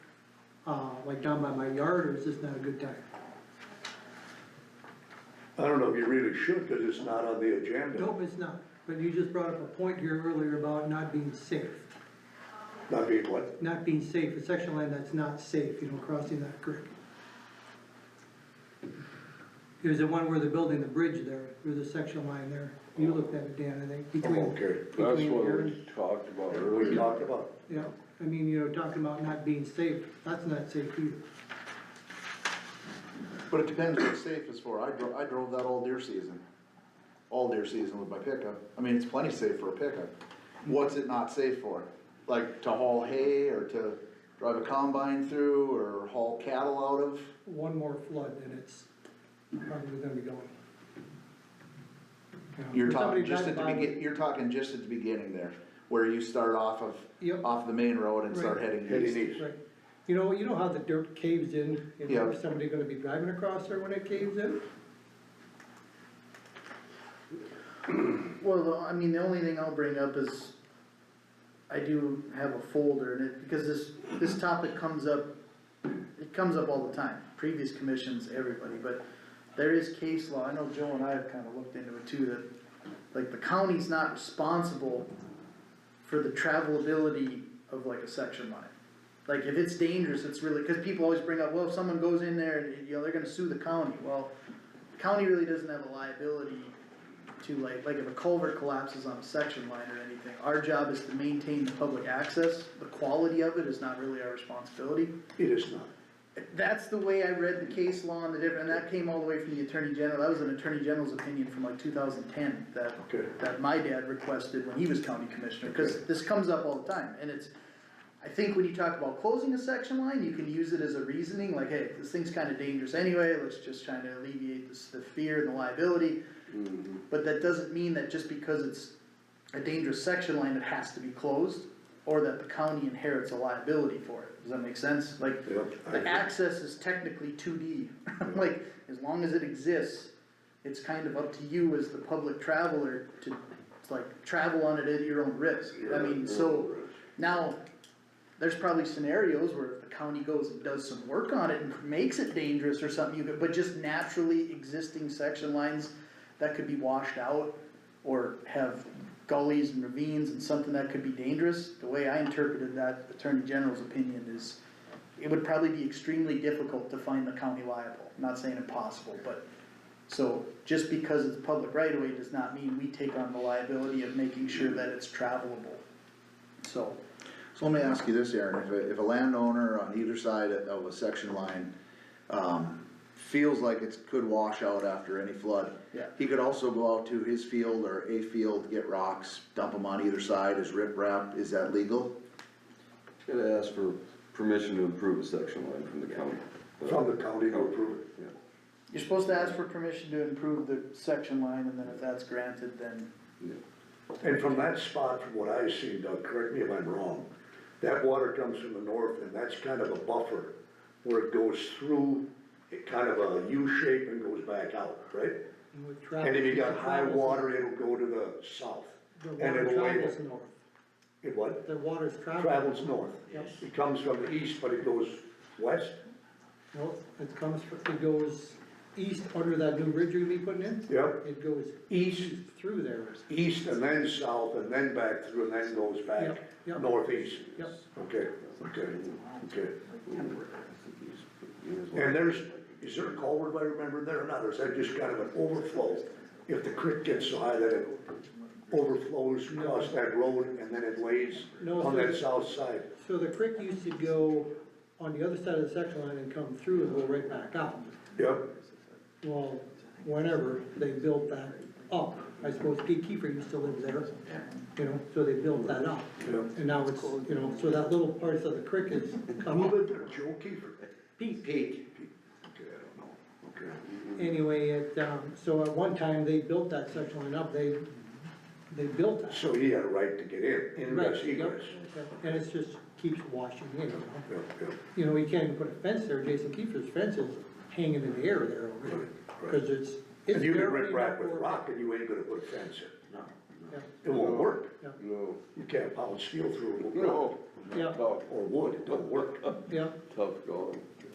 uh, like down by my yard, or is this not a good time? I don't know if you really should, cause it's not on the agenda, Nope, it's not, but you just brought up a point here earlier about not being safe. not being what, Not being safe, a section line that's not safe, you know, crossing that creek. There's the one where they're building the bridge there, there's a section line there, you looked at it, Dan, I think, I'm between. okay. That's between what here and- we talked about We earlier. talked about, Mm-hmm. Yeah, I mean, you know, talking about not being safe, that's not safe either. But it depends what safe is for. I drove, I drove that all deer season. All deer season with my pickup. I mean, it's plenty safe for a pickup. What's it not safe for? Like to haul hay or to drive a combine through or haul cattle out of? One more flood and it's probably gonna be going. Yeah, You're but somebody talking just at drives the by begin, with- you're talking just at the beginning there, where you start off of, Yep. off the main road and start Right. heading heading east. east, Right, you know, you know how the dirt caves in, you know, Yeah. is somebody gonna be driving across there when it caves in? Well, the- I mean, the only thing I'll bring up is, I do have a folder in it, because this, this topic comes up, it comes up all the time, previous commissions, everybody, but there is case law, I know Joe and I have kinda looked into it too, that, like, the county's not responsible for the travelability of like a section line. Like, if it's dangerous, it's really, cause people always bring up, well, if someone goes in there, and you know, they're gonna sue the county, well, the county really doesn't have a liability to like, like if a culvert collapses on a section line or anything, our job is to maintain the public access, the quality of it is not really our responsibility. it is not, That's the way I read the case law and the different, and that came all the way from the attorney general, that was an attorney general's opinion from like two thousand ten, that, Okay. that my dad requested when he was county commissioner, cause Okay. this comes up all the time, and it's, I think when you talk about closing a section line, you can use it as a reasoning, like, hey, this thing's kinda dangerous anyway, let's just try to alleviate this, the fear and the liability. Mm-hmm. But that doesn't mean that just because it's a dangerous section line, it has to be closed, or that the county inherits a liability for it, does that make sense? Like, Yep, I the agree. access is technically two D, like, as long as it exists, it's kind of up to you as the public traveler to, like, travel on it at your own risk, I mean, so, now, there's probably scenarios where if the county goes and does some work on it and makes it dangerous or something, you could, but just naturally existing section lines that could be washed out or have gullies and ravines and something that could be dangerous, the way I interpreted that Attorney General's opinion is it would probably be extremely difficult to find the county liable, not saying impossible, but so just because it's public right of way does not mean we take on the liability of making sure that it's travelable. So, So let me ask you this, Aaron, if a, if a landowner on either side of a section line, um, feels like it could wash out after any flood. Yeah. He could also go out to his field or a field, get rocks, dump them on either side as riprap, is that legal? Gotta ask for permission to improve a section line from the county. from the county to approve it. Yeah. You're supposed to ask for permission to improve the section line, and then if that's granted, then. And from that spot, from what I see, Doug, correct me if I'm wrong, that water comes from the north and that's kind of a buffer where it goes through, it kind of a U shape and goes back out, right? And with And if you traffic, got high travels- water, it'll go to the south. The and water it'll travels wave. north, It what? the water's traveling. Travels north. Yep. It comes from the east, but it goes west. No, it comes, fr- it goes east under that new bridge you're gonna be putting in. Yep. It goes East, through there, east and then south and then back through and then goes back Yep, yep. northeast. yep. Okay, okay, okay. And there's, is there a culvert, I remember there or not, or is that just kind of an overflow? If the creek gets so high that it overflows across that road and then it lays No, on sir. that south side? So the creek used to go on the other side of the section line and come through and go right back out. Yep, Well, whenever they built that up, I suppose Pete Kiefer used to live there, you know, so they built that up. yep. And now it's, you know, so that little parts of the creek is Who come up. lived there, Joe Kiefer? Pete, Pete. Okay, I don't know, okay. anyway, it, um, so at one time, they built that section line up, they, they built that. So he had a right to get in, Right, ingress, yep, egress. yep. And it's just keeps washing in, you know. Yep, yep. You know, you can't even put a fence there, Jason Kiefer's fence is hanging in the air there already, Right, right. cause it's. it's If you can barely rip rap with enough for- rock and you ain't gonna put a fence in. No. Yeah, It won't work. yeah. No. You can't pound steel through a rock. No. Yeah. Tough, or wood, it don't work. yeah. tough going.